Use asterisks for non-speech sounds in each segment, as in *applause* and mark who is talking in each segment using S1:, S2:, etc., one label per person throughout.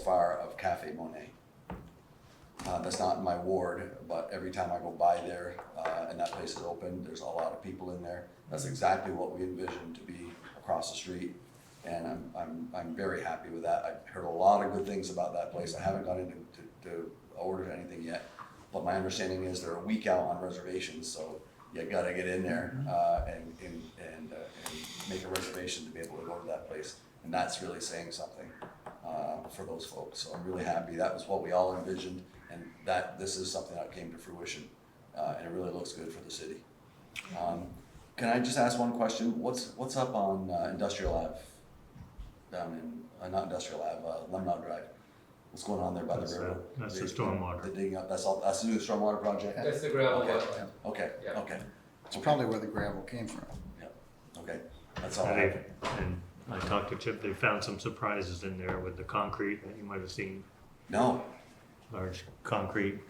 S1: far of Cafe Monet. Uh, that's not in my ward, but every time I go by there, uh, and that place is open, there's a lot of people in there. That's exactly what we envisioned to be across the street. And I'm, I'm, I'm very happy with that. I've heard a lot of good things about that place. I haven't gone in to, to, to order anything yet. But my understanding is they're a week out on reservations, so you gotta get in there, uh, and, and, and, uh, and make a reservation to be able to go to that place. And that's really saying something, uh, for those folks. So I'm really happy. That was what we all envisioned. And that, this is something that came to fruition, uh, and it really looks good for the city. Um, Can I just ask one question? What's, what's up on uh, Industrial Ave? Down in, uh, not Industrial Ave, uh, Lemonade Drive? What's going on there by the
S2: That's, uh,
S1: river?
S2: that's the
S1: They-
S2: stormwater.
S1: They're digging up, that's all, that's the new stormwater project?
S3: That's the gravel
S1: Okay.
S3: wetland.
S1: Okay,
S3: Yeah.
S1: okay,
S4: It's probably where the gravel came from.
S1: okay. That's all. I
S2: And
S1: have.
S2: they- and I talked to Chip, they found some surprises in there with the concrete that you might have seen,
S1: No,
S2: large concrete.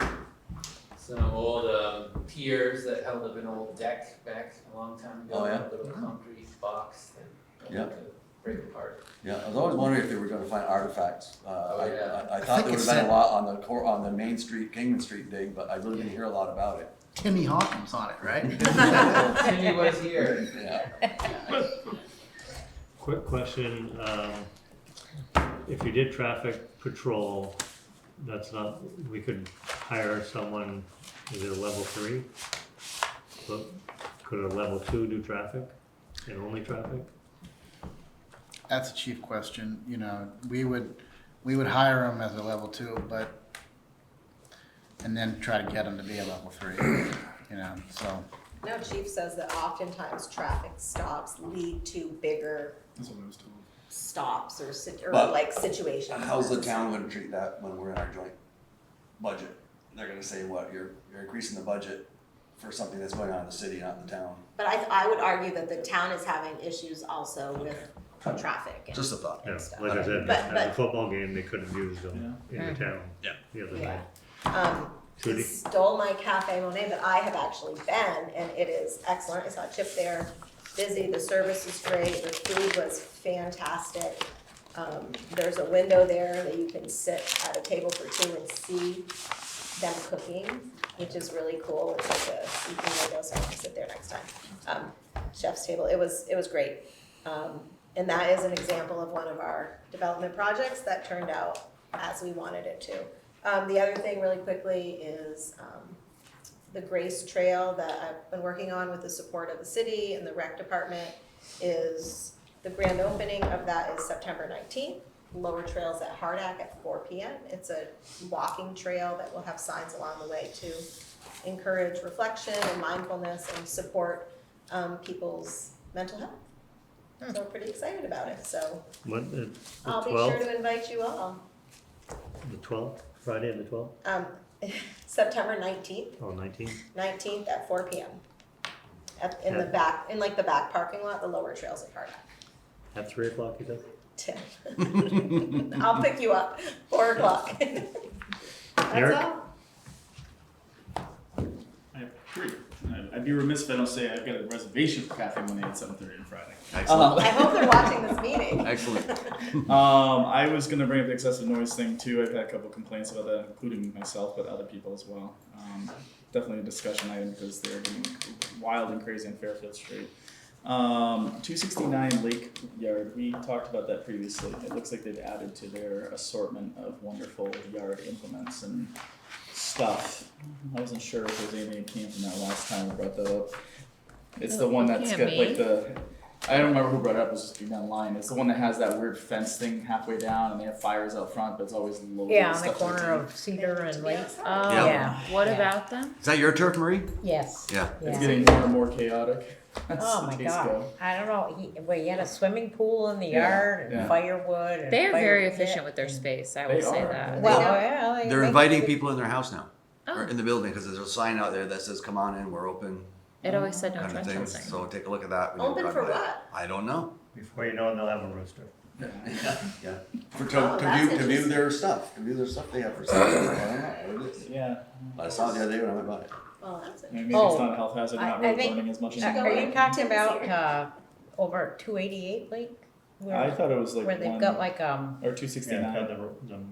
S3: Some old um, piers that held up an old deck back a long time ago.
S1: Oh, yeah?
S3: A little concrete box that
S1: Yeah.
S3: had to break apart.
S1: yeah, I was always wondering if they were gonna find artifacts. Uh,
S3: Oh,
S1: I-
S3: yeah.
S1: I, I
S4: I
S1: thought
S4: think
S1: there would
S4: it's
S1: have been a
S4: that-
S1: lot on the core, on the Main Street, Kingman Street dig, but I really didn't hear a lot about it.
S4: Timmy Hawkins on it, right? *laughs*
S3: Timmy was here.
S1: Yeah,
S2: Quick question, um, if you did traffic patrol, that's not, we could hire someone, is it a level three? But could a level two do traffic and only traffic?
S4: That's a chief question, you know, we would, we would hire him as a level two, but, and then try to get him to be a level three, you know, *laughs* so.
S5: Now Chief says that oftentimes traffic stops lead to bigger stops or sit, or
S1: But
S5: like situations.
S1: how's the town gonna treat that when we're in our joint budget? They're gonna say, what, you're, you're increasing the budget for something that's going on in the city, not in the town?
S5: But I, I would argue that the town is having issues also with traffic and.
S1: Just a thought.
S2: Yeah,
S5: Stuff.
S2: like I said,
S5: But-
S2: at the
S5: but- Hmm.
S2: football game, they couldn't use them in the town
S1: Yeah.
S2: the other
S5: Yeah.
S2: night.
S5: Um, he
S2: Trudy?
S5: stole my Cafe Monet that I have actually been, and it is excellent. I saw Chip there, busy, the service is great, the food was fantastic. Um, there's a window there that you can sit at a table for two and see them cooking, which is really cool. It's like a evening window, so I can sit there next time. Um, chef's table, it was, it was great. Um, and that is an example of one of our development projects that turned out as we wanted it to. Um, the other thing really quickly is, um, the Grace Trail that I've been working on with the support of the city and the rec department is, the grand opening of that is September nineteenth. Lower Trails at Hardak at four P M. It's a walking trail that will have signs along the way to encourage reflection and mindfulness and support, um, people's mental health. So we're pretty excited about it, so
S2: What, uh, the
S5: I'll be sure
S2: twelfth,
S5: to invite you all.
S2: the twelfth, Friday the twelfth,
S5: Um, September nineteenth,
S2: oh, nineteenth?
S5: nineteenth at four P M. Up in the
S2: Yeah.
S5: back, in like the back parking lot, the lower trails at Hardak.
S2: At three o'clock, you said?
S5: Tim. *laughs* I'll pick you up, four o'clock. *laughs* That's
S2: Eric?
S5: all.
S6: I have three. I'd- I'd be remiss if I don't say I've got a reservation for Cafe Monday at seven thirty on Friday.
S1: Excellent.
S5: I hope they're watching this meeting.
S1: Excellent.
S6: Um, I was gonna bring up the excessive noise thing too. I've had a couple complaints about that, including myself, but other people as well. Um, definitely a discussion item because they're getting wild and crazy on Fairfield Street. Um, two sixty-nine Lake Yard, we talked about that previously. It looks like they've added to their assortment of wonderful yard implements and stuff. I wasn't sure if there was anything that came from that last time we brought that up. It's the one that's got like the, I don't remember who brought it up, it was just being online. It's the one that has that weird fence thing halfway down and they have fires out front, but it's always low.
S7: Yeah, on the corner of Cedar and Lake. Oh,
S1: Yeah.
S7: yeah. What
S5: Yeah.
S7: about them?
S1: Is that your turf, Marie?
S7: Yes.
S1: Yeah.
S6: It's getting more and more chaotic. *laughs* as
S7: Oh
S6: the
S7: my
S6: days
S7: God.
S6: go.
S7: I don't know. He, well, he had a swimming pool in the
S6: Yeah,
S7: yard
S6: yeah.
S7: and firewood and.
S8: They are
S7: fire
S8: very
S7: pit.
S8: efficient with their space, I
S6: They
S8: will say
S6: are.
S8: that.
S7: Well,
S5: They don't-
S7: Oh, yeah. like-
S1: They're
S7: they-
S1: inviting people in their house now, or
S8: Oh,
S1: in the building, because there's a sign out there that says, come on in, we're open,
S8: it always said no
S1: kind of thing.
S8: trespassing.
S1: So take a look at that. when you
S5: Open
S1: drive
S5: for
S1: by.
S5: what?
S1: I don't know.
S2: Before you know it, they'll have a rooster.
S1: Yeah, yeah. For to,
S5: Oh,
S1: to
S5: that's
S1: view, to view
S5: interesting.
S1: their stuff, to view their stuff they have for *coughs* sale. I don't know what it is.
S6: Yeah,
S1: I saw it the other day when I went by.
S5: Well, that's it.
S6: I mean, maybe
S7: Oh.
S6: it's not a health hazard,
S7: I-
S6: not
S7: I
S6: really
S7: think-
S6: burning as much as.
S7: Uh,
S6: it
S7: Are
S6: might.
S7: you talking about, uh, over at two eighty-eight Lake?
S6: I
S7: Where,
S6: thought it was like
S7: where
S6: one
S7: they've got like, um.
S6: or two sixty
S2: Yeah,
S6: nine.
S2: the, the